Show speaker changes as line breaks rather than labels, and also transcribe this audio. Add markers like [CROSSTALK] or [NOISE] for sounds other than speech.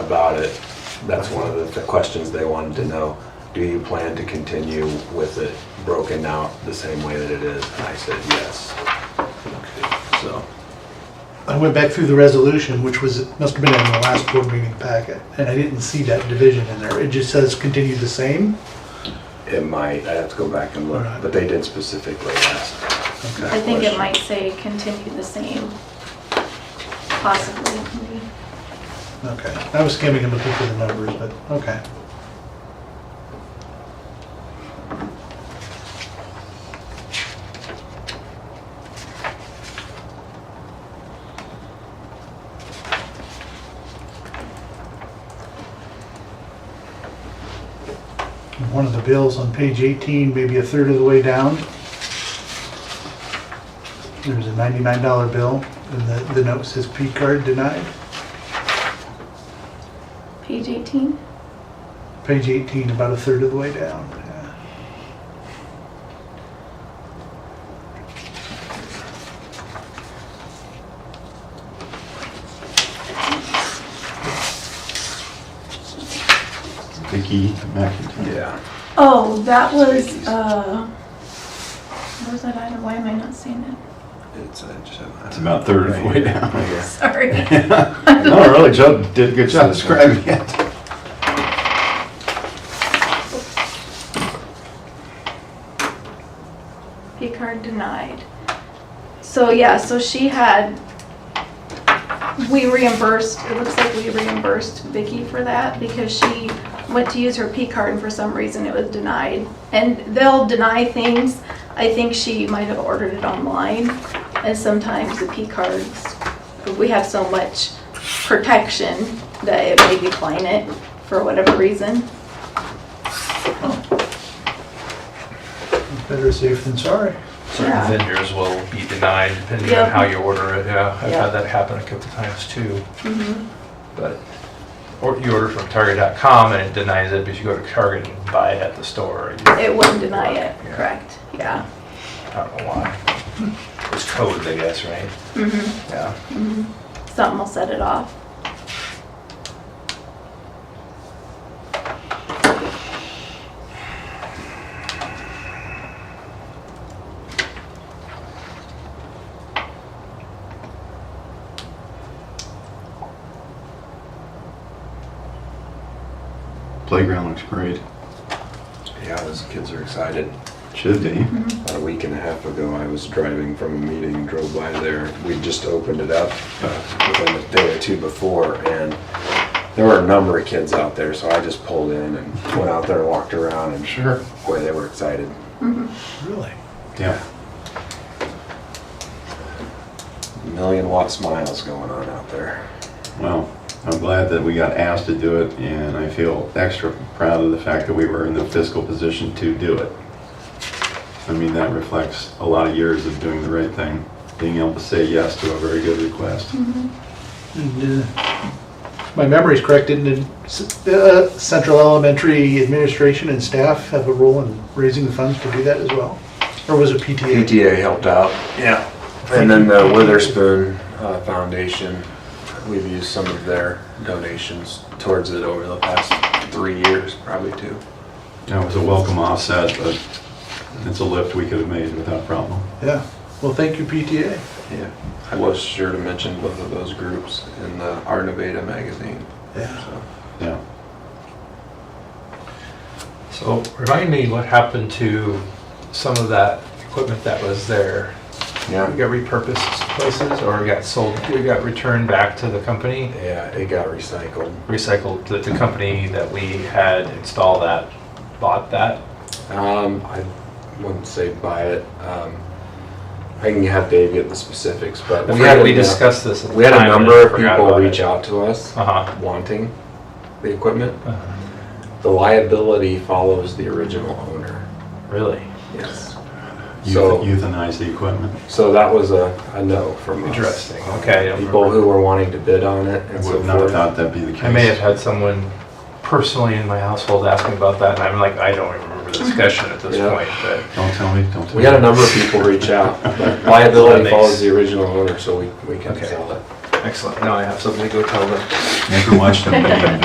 about it, that's one of the- the questions they wanted to know. Do you plan to continue with it broken out the same way that it is? And I said, yes. So,
I went back through the resolution, which was, must have been in the last board meeting packet, and I didn't see that division in there. It just says continue the same.
it might, I'd have to go back and look, but they did specifically ask. that
I think it
question.
might say continue the same, possibly.
Okay, I was skimming and looking for the numbers, but, okay. One of the bills on page 18, maybe a third of the way down. There's a $99 bill, and the, the note says P card denied.
Page 18?
Page 18, about a third of the way down. yeah.
Vicky McIntyre.
Yeah.
Oh, that was, uh, what was that item? Why am I not seeing it?
It's, I just haven't.
It's about
[LAUGHS]
third of the way [LAUGHS] down.
[LAUGHS] Sorry.
No, really, Joe did a good job describing it.
Picard denied. So yeah, so she had, we reimbursed, it looks like we reimbursed Vicky for that because she went to use her P card and for some reason it was denied. And they'll deny things. I think she might have ordered it online and sometimes the P cards, we have so much protection that it may decline it for whatever reason.
Better safe than sorry.
certain
Yeah.
vendors will be denied depending on
Yep.
how you order it, yeah. I've
Yeah.
had that happen a couple times too, but, or you order from Target.com and it denies it, but you go to Target and buy it at the store. you-
It wouldn't deny it,
Yeah.
correct? Yeah.
I don't know why. It's codes, I guess, right?
Mhm.
Yeah.
Something will set it off.
Playground looks great.
Yeah, those kids are excited.
Should be.
About a week and a half ago, I was driving from a meeting, drove by there. We just opened it up uh, within a day or two before, and there were a number of kids out there, so I just pulled in and went out there and walked around, and
Sure.
boy, they were excited.
Really?
Yeah.
Million watt smiles going on out there.
Well, I'm glad that we got asked to do it, and I feel extra proud of the fact that we were in the fiscal position to do it. I mean, that reflects a lot of years of doing the right thing, being able to say yes to a very good request.
And, uh, My memory's correct, didn't it? S- uh, Central Elementary Administration and staff have a role in raising the funds to do that as well? Or was it PTA?
PTA helped out. Yeah. And then the Witherspoon uh, Foundation, we've used some of their donations towards it over the past three years, probably two.
That was a welcome offset, but it's a lift we could have made without problem.
Yeah, well, thank you, PTA.
Yeah, I was sure to mention both of those groups in the Art Nevada magazine.
Yeah.
So
Yeah.
So remind me what happened to some of that equipment that was there? It
Yeah,
got repurposed places or it got sold, it got returned back to the company?
yeah, it got recycled.
Recycled, the, the company that we had installed that, bought that?
Um, I wouldn't say buy it. Um, I can have Dave get the specifics, but
I
we
forgot
had
we
a-
discussed this at the
We had a
time, and
number of
forgot
people
about
reach
it.
out to us
Uh-huh.
wanting the equipment.
Uh,
The liability follows the original owner.
Really?
Yes. So-
Euth- Euthanize the equipment.
So that was a, a no from us.
Interesting. Okay, I don't
People
remember.
who were wanting to bid on it
I
and so
would not have
forth.
thought that'd be the case.
I may have had someone personally in my household ask me about that, and I'm like, I don't even remember the discussion at this
Yeah.
point, but.
Don't tell me, don't tell me.
We had a number of people reach
[LAUGHS]
out. but
That
Liability
makes-
follows the original owner, so we, we can
Okay.
sell it.
Excellent. Now I have something to go tell them.
Never watched a meeting.